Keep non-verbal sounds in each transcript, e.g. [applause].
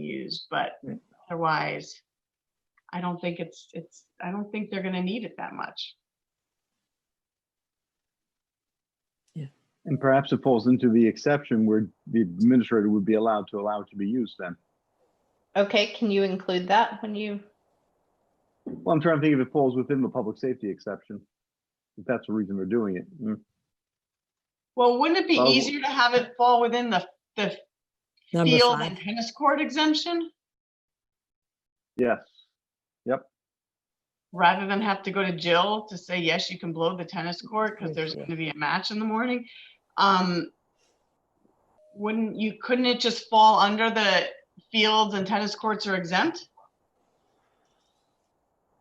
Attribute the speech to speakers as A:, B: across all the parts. A: used, but otherwise, I don't think it's, it's, I don't think they're gonna need it that much.
B: And perhaps it falls into the exception where the administrator would be allowed to allow it to be used then.
C: Okay, can you include that when you,
B: Well, I'm trying to think if it falls within the public safety exception. If that's the reason they're doing it. Mm.
A: Well, wouldn't it be
B: Well-
A: easier to have it fall within the, the
D: Number
A: field and
D: five,
A: tennis court exemption?
B: Yes,
A: Rather than have to go to Jill to say, yes, you can blow the tennis court because there's
D: Yeah.
A: gonna be a match in the morning. Um, wouldn't you, couldn't it just fall under the fields and tennis courts are exempt?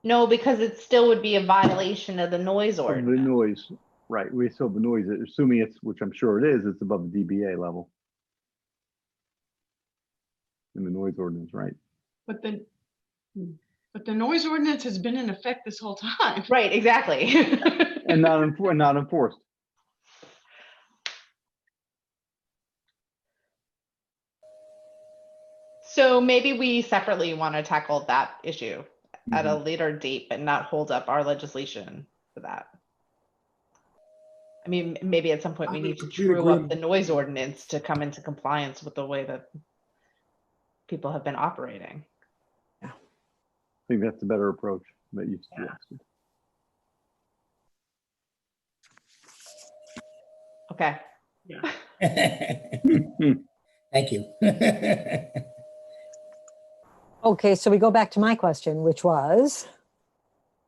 C: no, because it still would be a violation of the noise
B: of the
C: ordinance.
B: noise, right, we still have the noise, assuming it's, which I'm sure it is, it's above the DBA level. In the noise ordinance, right?
A: But the, hmm, but the noise ordinance has been in effect this whole [laughs] time.
C: Right, exactly. [laughs]
B: And not enfor- not enforced.
C: So maybe we separately want to tackle that issue at
E: Mm-hmm.
C: a later date, but not hold up our legislation for that. I mean, m- maybe at some point
E: I
C: we
E: would
C: need to
E: completely
C: true up
E: agree.
C: the noise ordinance to come into compliance with the way that people have been operating.
B: I think that's a better approach that you
A: Yeah.
B: suggested.
C: Okay,
B: Hmm.
F: [laughs] Thank you. [laughs]
D: okay, so we go back to my question, which was,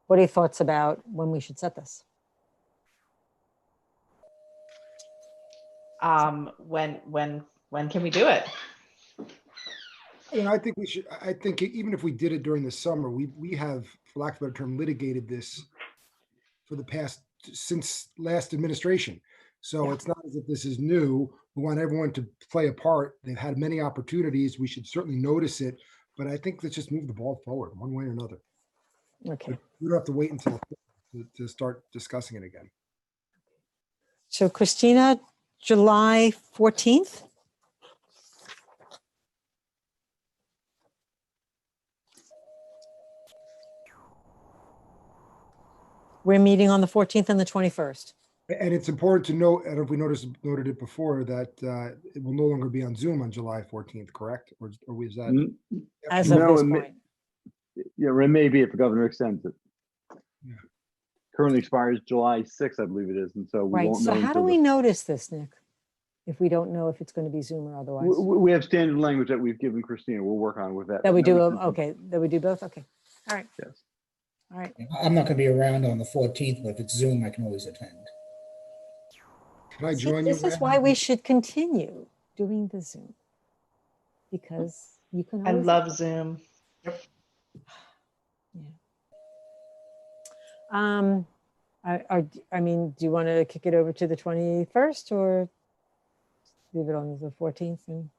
D: what are your thoughts about when we should set this?
C: um, when, when, when can we do it?
E: You know, I think we should, I- I think even if we did it during the summer, we, we have, for lack of a better term, litigated this for the past, since last administration. So it's not as if this is new. We want everyone to play a part. They've had many opportunities. We should certainly notice it. But I think let's just move the ball forward one way or another.
D: Okay,
E: We don't have to wait until to, to start discussing it again.
D: so Christina, July 14th? We're meeting on the 14th and the 21st.
E: A- And it's important to note, and if we noticed, noted it before, that uh, it will no longer be on Zoom on July 14th, correct? Or, is- or is that?
D: Mm-hmm.
B: N-
D: As of
B: No,
D: this
B: it may-
D: point,
B: Yeah, or it may be if the governor extends it.
E: Yeah.
B: Currently expires July sixth, I believe it is, and so we
D: right?
B: won't
D: So
B: know.
D: how do
B: until the-
D: we notice this, Nick? If we don't know if it's going to be Zoom or otherwise?
B: W- w- We have standard language that we've given Christina. We'll work on with that.
D: That we do,
B: notice
D: uh,
B: and-
D: okay, that we do both, okay,
B: Yes.
D: all right.
F: I'm not gonna be around on the fourteenth, but if it's Zoom, I can always attend.
E: Can I
D: See,
E: join you?
D: This is
E: Ann?
D: why we should continue doing the Zoom. Because you can.
C: I
D: always-
C: love Zoom.
D: Um, I, I, I mean, do you want to kick it over to the 21st or leave it on the 14th? And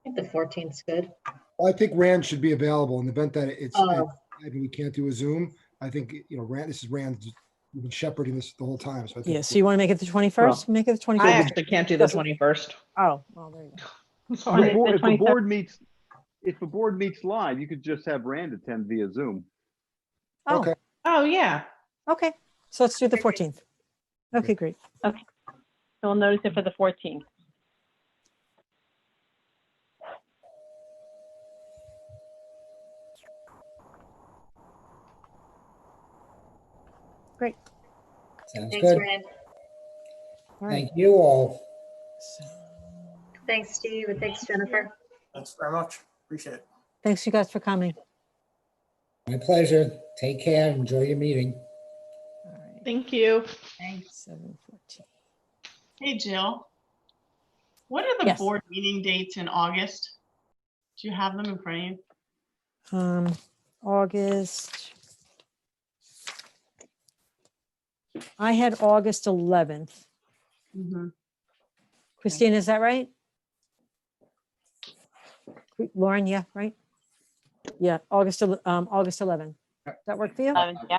G: I think the fourteenth's good.
E: Well, I think Rand should be available in the event that it's,
G: Oh.
E: I mean, we can't do a Zoom. I think, you know, Rand, this is Rand, we've been shepherding this the whole time, so I think.
D: Yeah, so you want to make it the 21st? Make it the
C: I
D: 21st?
C: actually can't do the 21st.
D: Oh, well, there you go.
B: If the
C: Sorry.
B: board- if the board meets, if the board meets live, you could just have Rand attend via Zoom.
D: Oh,
E: Okay.
C: Oh, yeah.
D: okay. So let's do the 14th. Okay, great.
H: So we'll notice it for the 14th.
F: Sounds
G: Thanks,
F: good.
G: Rand.
D: All right.
F: Thank you all.
G: Thanks, Steve, and thanks, Jennifer.
I: Thanks very much. Appreciate it.
D: Thanks you guys for coming.
F: My pleasure. Take care. Enjoy your meeting.
D: All right.
C: Thank you.
A: Thanks.
D: 7:14.
A: Hey, Jill. What are the
D: Yes.
A: board meeting dates in August? Do you have them in front of you?
D: Um, August. I had August 11th.
A: Mhm.
D: Christine, is that right? Cri- Lauren, yeah, right? Yeah, August, el- um, August 11th. Does that work for you?
H: Um, yeah,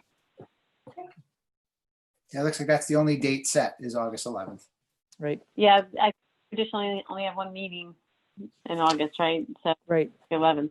I: Yeah, it looks like that's the only date set is August 11th.
D: Right,
H: Yeah, I traditionally only have one meeting in August, right? So
D: right.
H: eleven.